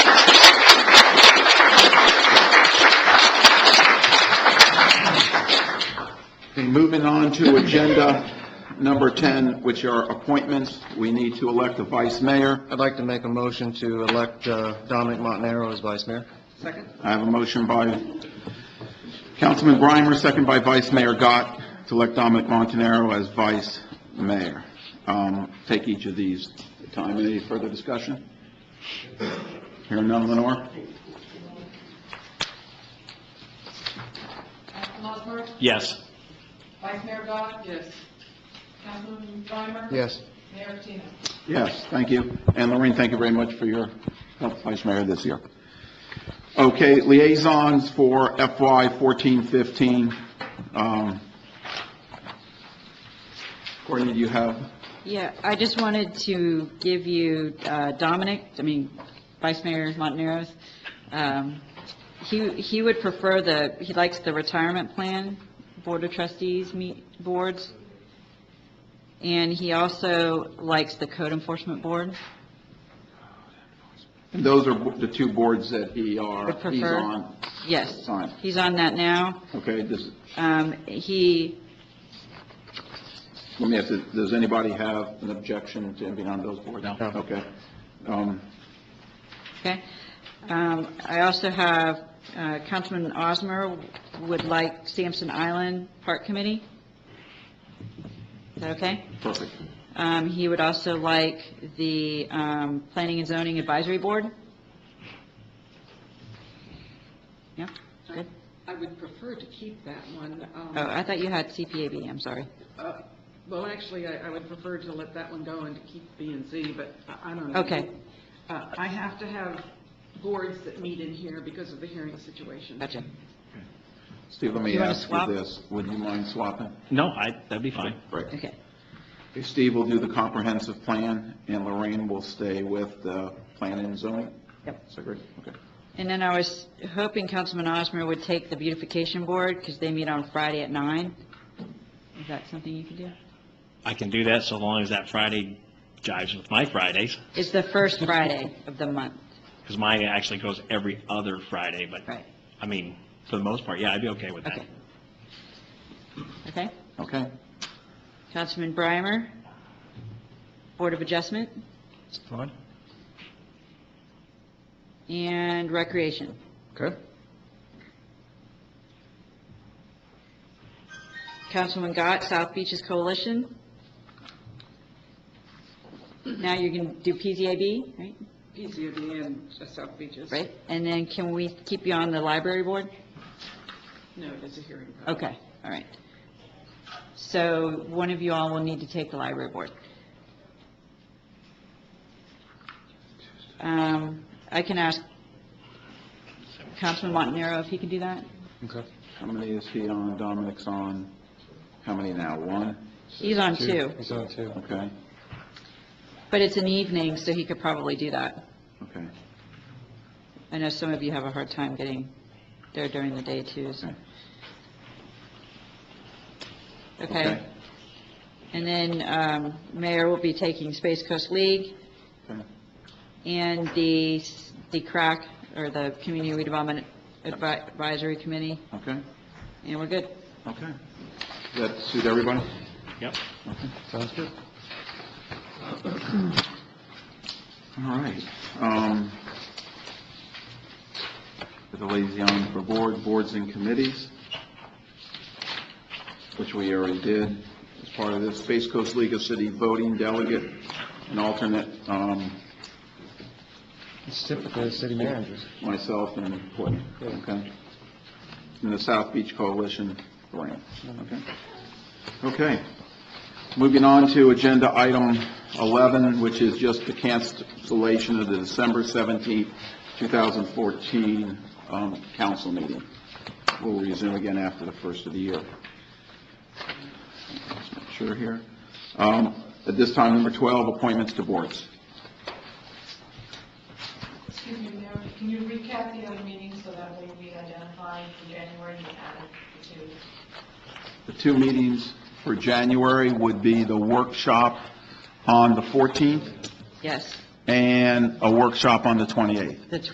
moving on to agenda number 10, which are appointments. We need to elect a vice mayor. I'd like to make a motion to elect uh, Dominic Montanaro as vice mayor. I have a motion by Councilman Brimer, second by Vice Mayor Gott, to elect Dominic Montanaro as vice mayor. Um, Take each of these at a time. Any further discussion? Hearing none, Lenore? Councilman Osmer? Yes. Vice Mayor Gott? Yes. Councilman Breimer? Yes. Mayor Patino? Yes, thank you. And Lorraine, thank you very much for your help, Vice Mayor, this year. Okay, liaisons for FY 14-15. Um, Courtney, do you have, Yeah, I just wanted to give you uh, Dominic, I mean, Vice Mayor Montanero's, um, he, he would prefer the, he likes the retirement plan, Board of Trustees meet, boards, and he also likes the Code Enforcement Board. those are the two boards that he are, Would prefer. he's on. Yes, Fine. he's on that now. Okay, this, Um, He, let me ask, you, does anybody have an objection to him being on those boards? No. Okay. Um, Okay. Um, I also have uh, Councilman Osmer would like Sampson Island Park Committee. Is that okay? Perfect. Um, He would also like the um, Planning and Zoning Advisory Board. Yeah, good. I would prefer to keep that one. um, Oh, I thought you had CPAB, I'm sorry. uh, Well, actually, I I would prefer to let that one go and to keep B and Z, but I- I don't know. Okay. Uh, I have to have boards that meet in here because of the hearing situation. Gotcha. Steve, let me You wanna ask you swap? this. Would you mind swapping? No, I, that'd be fine. Right. Okay. Steve will do the comprehensive plan, and Lorraine will stay with the plan and zoning? Yep. Is that great? Okay. And then I was hoping Councilman Osmer would take the Beautification Board because they meet on Friday at nine. Is that something you can do? I can do that so long as that Friday jives with my Fridays, It's the first Friday of the month, because mine actually goes every other Friday, but, right? I mean, for the most part, yeah, I'd be okay with that. Okay. Okay. Okay. Councilman Brimer, Board of Adjustment Fine. and Recreation. Okay. Councilman Gott, South Beaches Coalition. Now you're going to do PZAB, right? PCOD and uh, South Beaches. Right? And then can we keep you on the Library Board? No, there's a hearing. Okay, all right. So one of you all will need to take the library board. Um, I can ask Councilman Montanaro if he can do that. Okay. How many is he on? Dominic's on, how many now? One? He's on two, He's on two. Okay, but it's an evening, so he could probably do that. okay. I know some of you have a hard time getting there during the day too, so. Okay. Okay. And then um, Mayor will be taking Space Coast League. Okay. And the, the CRAC, or the Community Redevelopment Advi- Advisory Committee, Okay, and we're good. okay. Does that suit everybody? Yep. Sounds good. All right. Um, For the liaison for board, boards and committees, which we already did as part of this, Space Coast League of City Voting Delegate and alternate, um, It's typically the city managers. myself and Courtney, okay? And the South Beach Coalition, Lorraine, okay? Okay. Moving on to agenda item 11, which is just the cancellation of the December 17th, 2014 um, council meeting. We'll resume again after the first of the year. Let's make Sure here. Um, At this time, number 12, appointments to boards. Excuse me, Mayor, can you recap the other meetings so that way we identify for January and add it to? The two meetings for January would be the workshop on the 14th Yes, and a workshop on the 28th. the